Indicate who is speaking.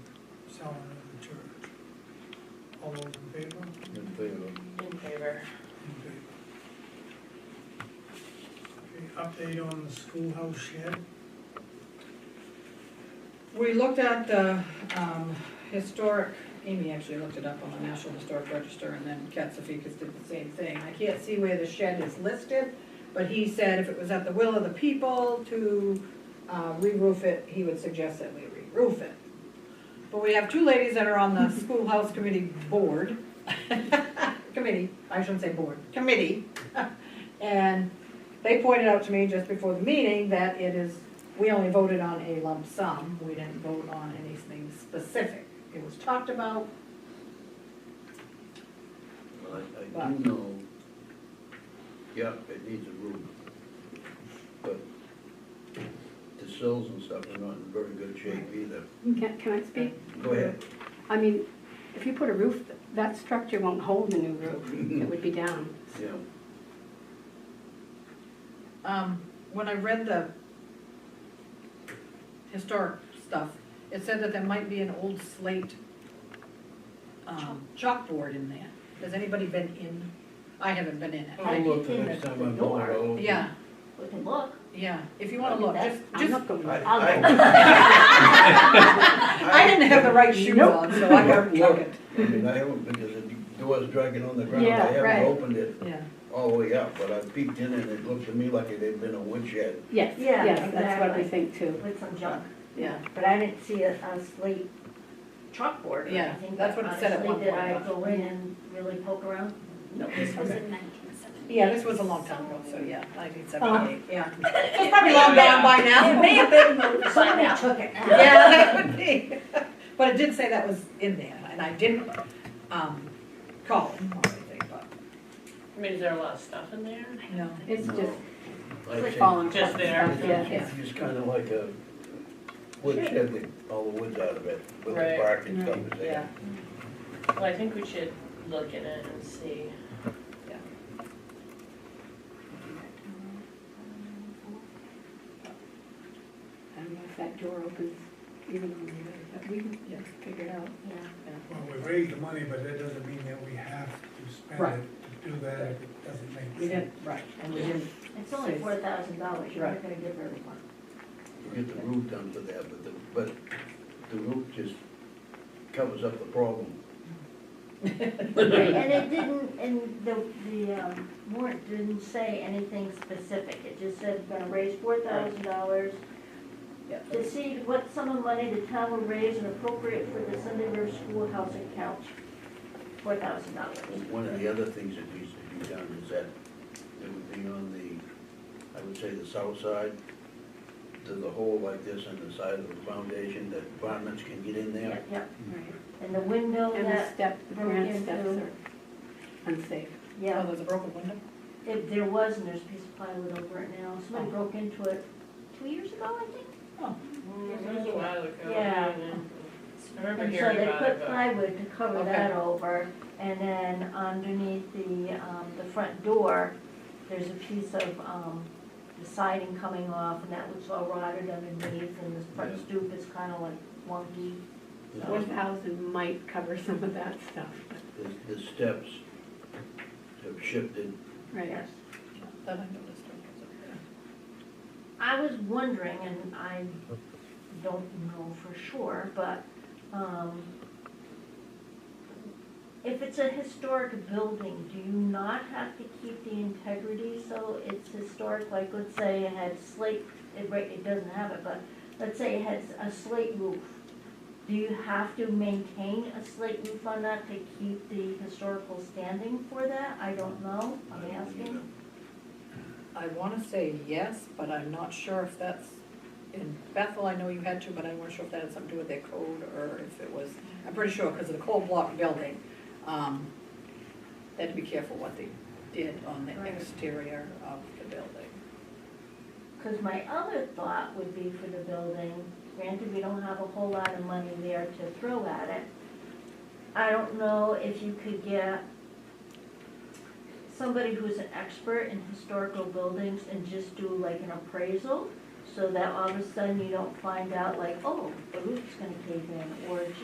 Speaker 1: selling of the church. All those in favor?
Speaker 2: in favor.
Speaker 3: In favor.
Speaker 1: Okay, Update on the schoolhouse shed,
Speaker 4: We looked at the um, historic, Amy actually looked it up on the National Historic Register, and then Katsifikas did the same thing. I can't see where the shed is listed, but he said if it was at the will of the people to uh, re-roof it, he would suggest that we re-roof it. But we have two ladies that are on the schoolhouse committee board, committee, I shouldn't say board, committee. And they pointed out to me just before the meeting that it is, we only voted on a lump sum, we didn't vote on anything specific. It was talked about,
Speaker 2: I, I do know, yeah, it needs a roof, but the sills and stuff are not in very good shape either.
Speaker 5: Can, can I speak?
Speaker 2: Go ahead.
Speaker 5: I mean, if you put a roof, that structure won't hold the new roof. It would be down.
Speaker 2: Yeah,
Speaker 4: um, when I read the historic stuff, it said that there might be an old slate, um, chalkboard in there. Has anybody been in? I haven't been in
Speaker 2: I'll
Speaker 4: it.
Speaker 2: look the next time I'm over. I'll-
Speaker 4: Yeah,
Speaker 3: We can look.
Speaker 4: yeah, if you wanna look, just,
Speaker 5: I'm
Speaker 4: just
Speaker 5: not going
Speaker 2: I-
Speaker 5: to.
Speaker 4: I didn't have the right shoes
Speaker 5: Nope.
Speaker 4: on, so I got
Speaker 2: Look,
Speaker 4: it.
Speaker 2: I mean, I haven't, because the door's dragging on the ground, I
Speaker 5: Yeah,
Speaker 2: haven't
Speaker 5: right.
Speaker 2: opened it
Speaker 4: Yeah.
Speaker 2: all the way up, but I peeked in and it looked to me like it had been a woodshed.
Speaker 5: Yes,
Speaker 6: Yeah,
Speaker 5: yes, that's what we
Speaker 6: exactly.
Speaker 5: think too.
Speaker 6: With some junk,
Speaker 4: Yeah.
Speaker 6: but I didn't see a, a slate chalkboard or anything.
Speaker 4: Yeah, that's what it said at
Speaker 6: Honestly,
Speaker 4: one
Speaker 6: Did
Speaker 4: point.
Speaker 6: I go in and really poke around?
Speaker 4: No,
Speaker 7: This was in nineteen seventy.
Speaker 4: Yeah, this was a long time ago, so yeah, nineteen seventy-eight, yeah. It's
Speaker 6: probably long gone
Speaker 4: by
Speaker 6: It may have been, but somebody
Speaker 7: out.
Speaker 6: took it.
Speaker 4: Yeah, that would be, but it did say that was in there, and I didn't, um, call him or anything, but,
Speaker 3: I mean, is there a lot of stuff in there?
Speaker 4: no.
Speaker 5: It's
Speaker 2: No.
Speaker 5: just
Speaker 2: I think
Speaker 5: falling apart.
Speaker 3: Just there.
Speaker 5: stuff, Yeah.
Speaker 2: It's just kinda like a woodshed, they- all the woods out of it, with the
Speaker 3: Right.
Speaker 2: bark and stuff. is
Speaker 4: Yeah,
Speaker 2: there.
Speaker 3: Well, I think we should look at it and see.
Speaker 5: I don't know if that door opens even on the other, but we can
Speaker 4: Yeah.
Speaker 5: figure it out.
Speaker 1: well, we raised the money, but that doesn't mean that we have to spend it to do that if it doesn't make sense.
Speaker 4: we didn't, right, and we didn't,
Speaker 6: It's only four thousand dollars, you're
Speaker 4: Right.
Speaker 6: not gonna give everyone.
Speaker 2: You get the roof done for that, but the, but the roof just covers up the problem.
Speaker 6: And it didn't, and the, the um, warrant didn't say anything specific, it just said we're gonna raise four thousand dollars
Speaker 4: yeah.
Speaker 6: to see what sum of money the town will raise and appropriate for the Sunday River Schoolhouse account, four thousand dollars.
Speaker 2: One of the other things that needs to be done is that it would be on the, I would say the south side, to the hole like this on the side of the foundation, that varmints can get in there.
Speaker 6: Yep, yep,
Speaker 5: Right.
Speaker 6: and the window
Speaker 5: And the
Speaker 6: that,
Speaker 5: step, the
Speaker 6: broke
Speaker 5: granite steps
Speaker 6: into-
Speaker 5: are unsafe.
Speaker 4: Oh,
Speaker 6: yeah,
Speaker 4: there's a broken window?
Speaker 6: if there was, and there's a piece of plywood over it now, somebody
Speaker 3: Oh.
Speaker 6: broke into it two years ago, I think.
Speaker 3: It was a while ago.
Speaker 6: Yeah.
Speaker 3: I remember
Speaker 6: And so
Speaker 3: hearing
Speaker 6: they
Speaker 3: about it, uh,
Speaker 6: put
Speaker 3: but.
Speaker 6: plywood to cover
Speaker 4: Okay.
Speaker 6: that over, and then underneath the, um, the front door, there's a piece of, um, the siding coming off, and that was all rotted underneath, and the front
Speaker 2: Yeah.
Speaker 6: stoop is kinda like wonky.
Speaker 5: Four thousand might cover some of that stuff, but,
Speaker 2: The, the steps have shifted.
Speaker 5: right.
Speaker 4: That I noticed. okay.
Speaker 6: I was wondering, and I don't know for sure, but, um, if it's a historic building, do you not have to keep the integrity so it's historic? Like, let's say it had slate, it, right, it doesn't have it, but let's say it has a slate roof. Do you have to maintain a slate roof on that to keep the historical standing for that? I don't know, I'm asking.
Speaker 4: I wanna say yes, but I'm not sure if that's, in Bethel, I know you had to, but I wasn't sure if that had something to do with their code, or if it was, I'm pretty sure, because of the cold block building, um, they had to be careful what they did on the
Speaker 6: Right.
Speaker 4: exterior of the building.
Speaker 6: Because my other thought would be for the building, granted, we don't have a whole lot of money there to throw at it. I don't know if you could get somebody who's an expert in historical buildings and just do like an appraisal, so that all of a sudden you don't find out like, oh, the roof's gonna cave in, or